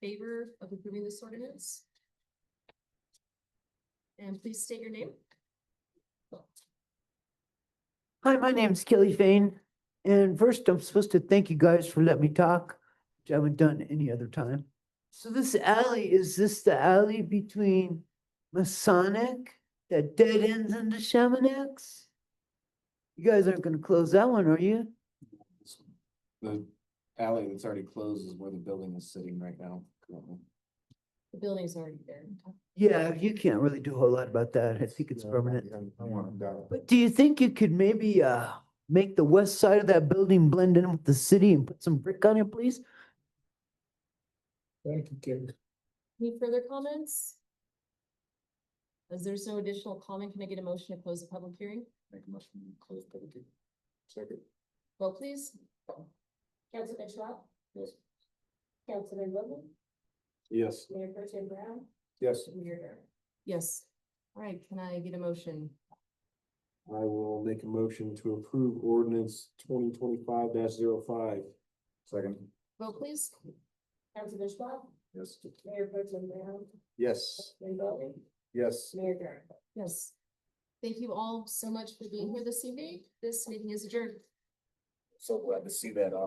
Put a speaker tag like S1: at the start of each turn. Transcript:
S1: favor of approving this ordinance? And please state your name.
S2: Hi, my name's Kelly Fain, and first I'm supposed to thank you guys for letting me talk, which I haven't done any other time. So this alley, is this the alley between Masonic that dead ends into Chaminax? You guys aren't gonna close that one, are you?
S3: The alley that's already closed is where the building is sitting right now. currently.
S1: The building's already there.
S2: Yeah, you can't really do a whole lot about that. I think it's
S3: Yeah,
S2: permanent.
S3: yeah, I want it down.
S2: But do you think you could maybe uh make the west side of that building blend in with the city and put some brick on it, please?
S3: Thank you, Ken.
S1: Any further comments? As there's no additional comment, can I get a motion to close the public hearing?
S3: Make a motion to close public hearing. Second.
S1: Vote please. Councilman Schwab?
S3: Yes.
S1: Councilman Bowman?
S3: Yes.
S1: Mayor Tim Brown?
S3: Yes,
S1: Mayor Yes. All right, can I get a motion?
S3: I will make a motion to approve ordinance twenty twenty-five 5 Second.
S1: Vote please. Councilman Schwab?
S3: Yes.
S1: Mayor Tim Brown?
S3: Yes.
S1: Councilman Bowman?
S3: Yes.
S1: Mayor Yes. Thank you all so much for being here this evening. This meeting is adjourned.
S3: So glad to see that